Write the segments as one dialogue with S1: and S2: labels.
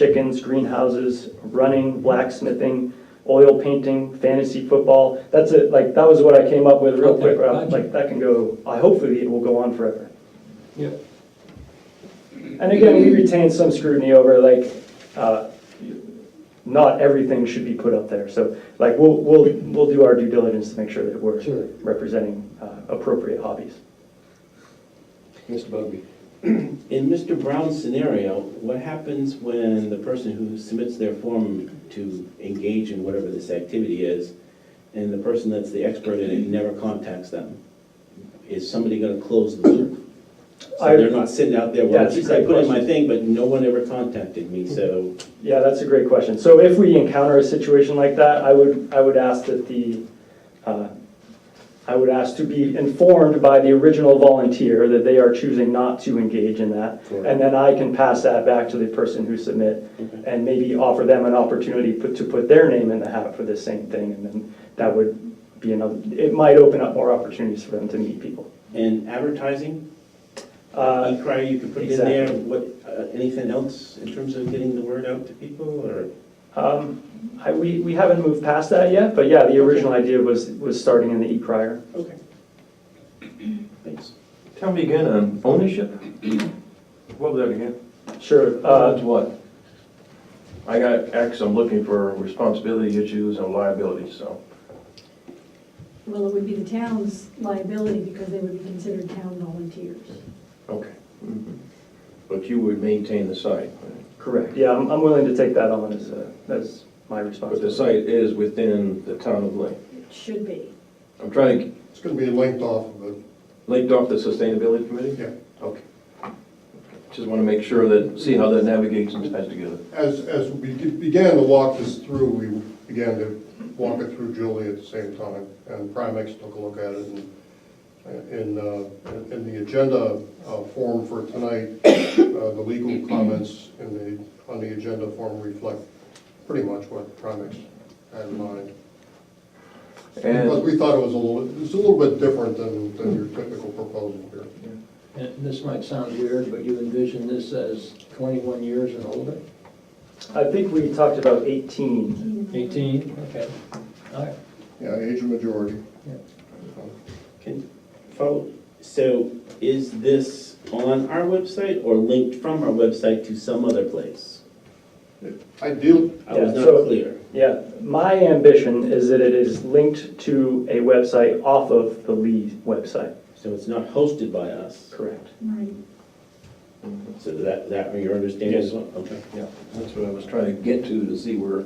S1: chickens, greenhouses, running, blacksmithing, oil painting, fantasy football. That's it, like, that was what I came up with real
S2: Okay,
S1: quick, Rob.
S2: gotcha.
S1: like, that can go, I hopefully it will go on forever.
S2: Yep.
S1: And again, we retain some scrutiny over, like, uh, not everything should be put up there, so, like, we'll, we'll, we'll do our due diligence to make sure that we're
S2: Sure.
S1: representing uh, appropriate hobbies.
S2: Mr. Bugby.
S3: In Mr. Brown's scenario, what happens when the person who submits their form to engage in whatever this activity is, and the person that's the expert in it never contacts them? Is somebody gonna close the loop?
S1: I-
S3: So they're not sitting out there, well,
S1: That's a
S3: geez, I
S1: great
S3: put in my
S1: question.
S3: thing, but no one ever contacted me, so.
S1: Yeah, that's a great question. So if we encounter a situation like that, I would, I would ask that the, uh, I would ask to be informed by the original volunteer that they are choosing not to engage in that. And then I can pass that back to the person who submit
S3: Okay.
S1: and maybe offer them an opportunity put- to put their name in the hat for the same thing. And then that would be another, it might open up more opportunities for them to meet people.
S3: And advertising,
S1: Uh,
S3: e-crier, you can put it in there,
S1: exactly.
S3: what, uh, anything else in terms of getting the word out to people, or?
S1: Um, I, we, we haven't moved past that yet, but yeah, the original idea was, was starting in the e-crier.
S3: Okay. Thanks.
S4: Tell me again on ownership? What was that again?
S1: Sure,
S4: That's
S1: uh,
S4: what? I got X, I'm looking for responsibility issues and liability, so.
S5: Well, it would be the town's liability because they would be considered town volunteers.
S4: Okay. Mm-hmm. But you would maintain the site,
S1: correct, yeah, I'm, I'm willing to take that on as, a- as my
S4: but the
S1: responsibility.
S4: site is within the town of Lake.
S5: It should be.
S4: I'm trying to,
S6: It's gonna be linked off of it,
S4: linked off the sustainability committee?
S6: yeah.
S4: Okay. Just want to make sure that, see how that navigates and ties together.
S6: As, as we be- began to walk this through, we began to walk it through Julie at the same time, and Primex took a look at it, and in, uh, in the agenda uh, form for tonight, uh, the legal comments in the, on the agenda form reflect pretty much what Primex had in mind. Because
S4: And
S6: we thought it was a little, it's a little bit different than, than your typical proposal here.
S2: And this might sound weird, but you envision this as 21 years and older?
S1: I think we talked about eighteen.
S2: 18, okay. All right.
S6: Yeah, age of majority.
S2: Yeah.
S3: Can, follow, so is this on our website or linked from our website to some other place?
S6: Ideal,
S3: I was
S1: Yeah, so-
S3: not clear.
S1: Yeah, my ambition is that it is linked to a website off of the Lee website.
S3: So it's not hosted by us,
S1: Correct.
S5: Right.
S3: so that, that, your understanding as well? Okay.
S4: Yeah, that's what I was trying to get to, to see where,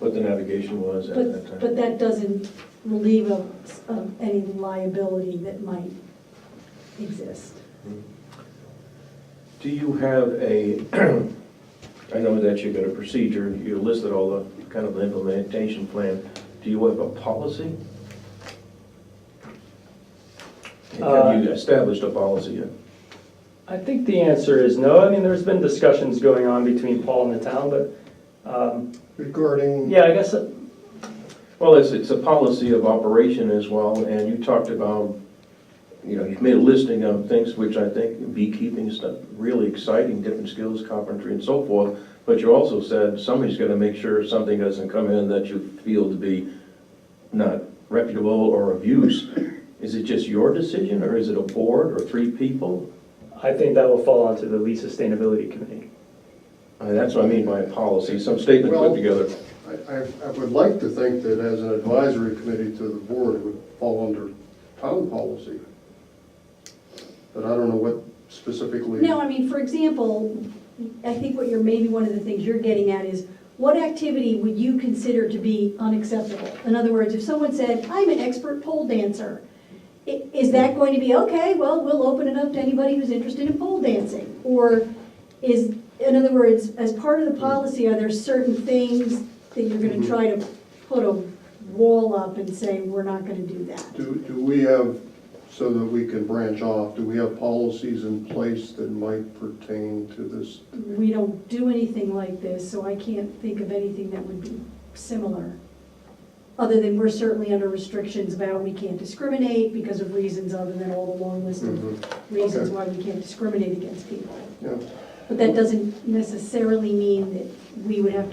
S4: what the navigation was at that
S5: But,
S4: time.
S5: but that doesn't relieve us of any liability that might exist.
S4: Do you have a, I know that you've got a procedure, you listed all the kind of implementation plan. Do you have a policy? Have you established a policy yet?
S1: I think the answer is no. I mean, there's been discussions going on between Paul and the town, but, um,
S6: regarding.
S1: yeah, I guess, uh,
S4: Well, it's, it's a policy of operation as well, and you talked about, you know, you've made a listing of things which I think beekeeping is not really exciting, different skills, carpentry and so forth, but you also said somebody's gonna make sure something doesn't come in that you feel to be not reputable or of use. Is it just your decision, or is it a board or three people?
S1: I think that will fall onto the Lee Sustainability Committee.
S4: Uh, That's what I mean by policy, some statement put
S6: Well-
S4: together.
S6: I, I- I would like to think that as an advisory committee to the board, it would fall under town policy. But I don't know what specifically.
S5: No, I mean, for example, I think what you're, maybe one of the things you're getting at is, what activity would you consider to be unacceptable? In other words, if someone said, I'm an expert pole dancer, i- is that going to be, okay, well, we'll open it up to anybody who's interested in pole dancing? Or is, in other words, as part of the policy, are there certain things that you're gonna try to put a wall up and say, we're not gonna do that?
S6: Do, do we have, so that we can branch off, do we have policies in place that might pertain to this?
S5: We don't do anything like this, so I can't think of anything that would be similar. Other than we're certainly under restrictions about we can't discriminate because of reasons other than all the long list of
S6: Mhm.
S5: reasons
S6: Okay.
S5: why we can't discriminate against people.
S6: Yeah,
S5: But that doesn't necessarily mean that we would have to